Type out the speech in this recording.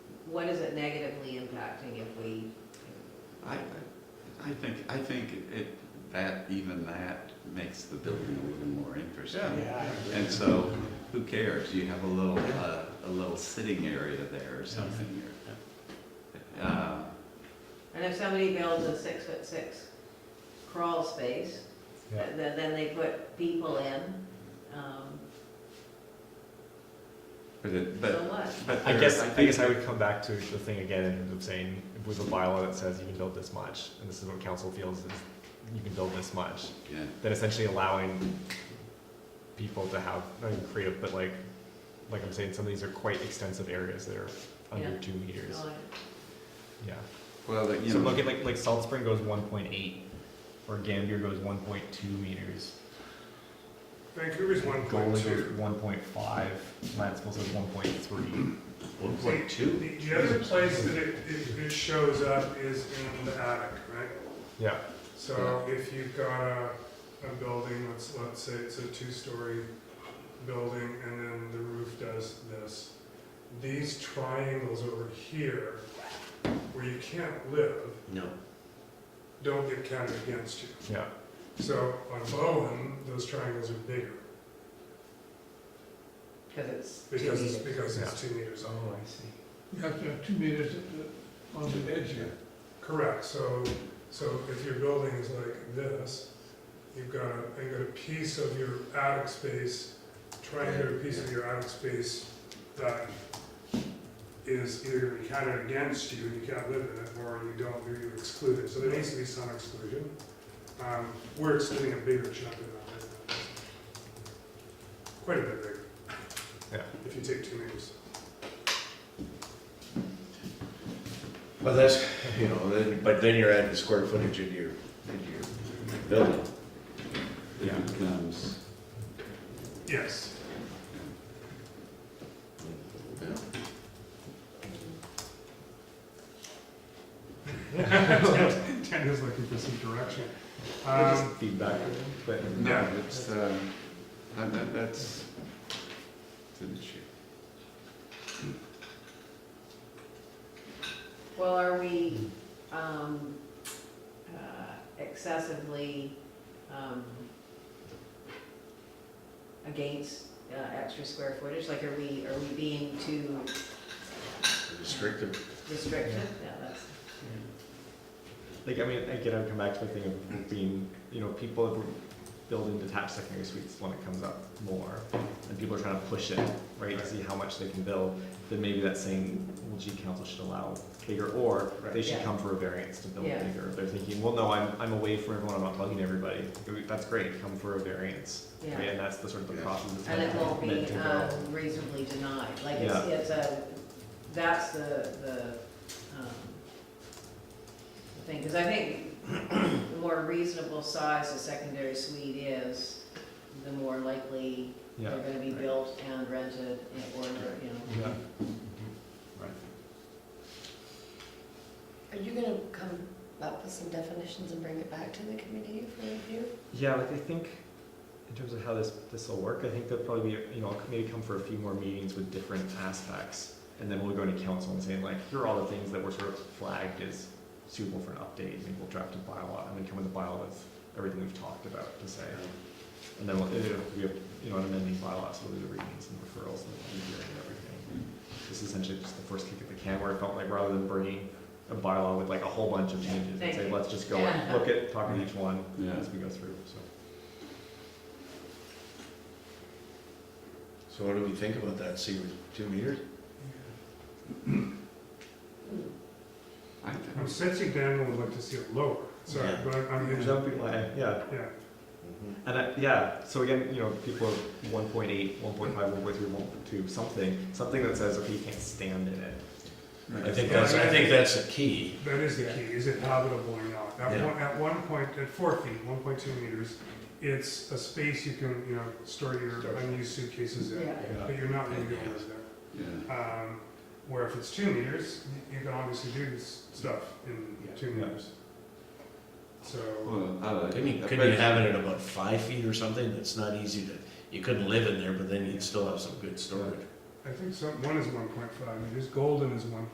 what is it negatively impacting if we, I, I think, I think it, that, even that makes the building a little more interesting. Yeah, I agree. And so, who cares, you have a little, uh, a little sitting area there or something, or, uh, and if somebody builds a six foot six crawl space, Yeah. th- then they put people in, um, but it, so but, what? but I there- guess, I think guess I would come back to the thing again in terms of saying, with a bylaw that says you can build this much, and this is what council feels is you can build this much, Yeah, then essentially allowing people to have, not even creative, but like, like I'm saying, some of these are quite extensive areas that are under Yeah. two meters. No, Yeah. well, that, you So look know, at like, like Salt Spring goes one point eight, or Gambier goes one point two meters. Vancouver's one point Goalie two. goes one point five, Lansville says one point Hmm. three. one point two, The the other place that it, it it shows up is in the attic, right? Yeah, So if you've got a, a building, let's, let's say it's a two-story building, and then the roof does this. These triangles over here, where you can't live, No. don't get counted against you. yeah. So on Bowen, those triangles are bigger, Cause it's two because it's, meters. because it's two meters long. I see. You have to have two meters at the- on the edge here. Correct, so, so if your building is like this, you've got a, you've got a piece of your attic space, triangular piece of your attic space that is either gonna be counted against you, and you can't live in it, or you don't, or you're excluded, so there needs to be some exclusion. Um, we're excluding a bigger chunk of that. Quite a bit bigger. Yeah. If you take two meters. But that's, you know, then, but then you're adding square footage into your, into your building. Yeah. it becomes, Yes. Ted is looking for some direction. Um, Feedback, but. no, Yeah. it's, uh, that, that- that's, it's an issue. Well, are we um, uh, excessively um, against uh, extra square footage? Like, are we, are we being too Restrictive. restrictive? Yeah, that's, Like, I mean, again, I would come back to the thing of being, you know, people have building detached secondary suites when it comes up more, and people are trying to push it, right, to see how much they can build, then maybe that's saying, well, gee, council should allow bigger, or they should Yeah. come for a variance to build Yeah. bigger. They're thinking, well, no, I'm, I'm away from everyone, I'm not bugging everybody, that's great, come for a variance, right, yeah. and that's the sort of the Yeah. process that's And it won't meant be to go. um, reasonably denied. Like, it's, it's a, that's the, the um, the thing. Because I think the more reasonable size a secondary suite is, the more likely Yeah, They're gonna be right. built and rented and- or, you know. yeah. Are you gonna come up with some definitions and bring it back to the committee for review? Yeah, like I think in terms of how this this will work, I think there'll probably be you know maybe come for a few more meetings with different aspects, and then we'll go into council and saying like here are all the things that were sort of flagged as suitable for an update. Maybe we'll draft a bylaw and then come with a bylaw with everything we've talked about to say, and then we'll it'll be a- you know an amending bylaw so we'll do the readings and referrals and the hearing and everything. This is essentially just the first kick at the can where it felt like rather than bringing a bylaw with like a whole bunch of changes and Thank say you. let's just go and look at talking each one Yeah. as we go through. So. So what do we think about that, see, with two meters? I, I'm sensing Dan would like to see it lower, sorry, Yeah. but I'm, There's yeah, other people, I- yeah, and I, yeah, so again, you know, people are 1.8, 1.5, 1.3, 1.2, something, something that says, okay, you can't stand in it. I I think that's, I think that's the key. that is the key, is it habitable or not? At Yeah. one, at one point, at four feet, one point two meters, it's a space you can, you know, store your Store. unused suitcases in, but you're not gonna be able to live Yeah, there. Um, where if it's two meters, you can obviously do s- stuff in Yeah. two Yeah. meters. So, well, I like. Couldn't you, that, couldn't you but- have it at about five feet or something, that's not easy to, you couldn't live in there, but then you'd still have some good storage. I think some, one is one point five meters, Golden is one